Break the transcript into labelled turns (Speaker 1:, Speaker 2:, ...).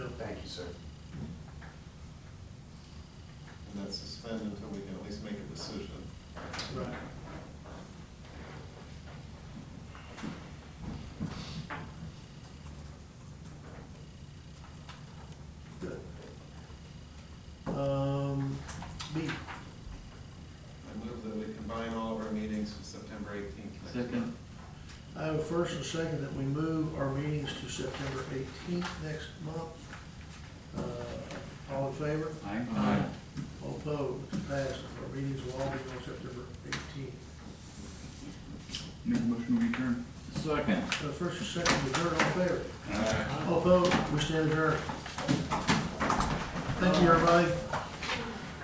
Speaker 1: sir.
Speaker 2: And that's suspended until we can at least make a decision.
Speaker 3: Right. Good. Um, B,
Speaker 2: I move that we combine all of our meetings to September eighteenth next month.
Speaker 4: Second.
Speaker 3: I have a first and second that we move our meetings to September eighteenth next month. Uh, all in favor?
Speaker 4: Aye.
Speaker 3: Aye. All opposed, passes. Our meetings will all be on September eighteenth.
Speaker 4: Make a motion to adjourn. Second.
Speaker 3: Uh, first and second, we adjourn, all in favor? All opposed, we stand adjourned. Thank you, everybody.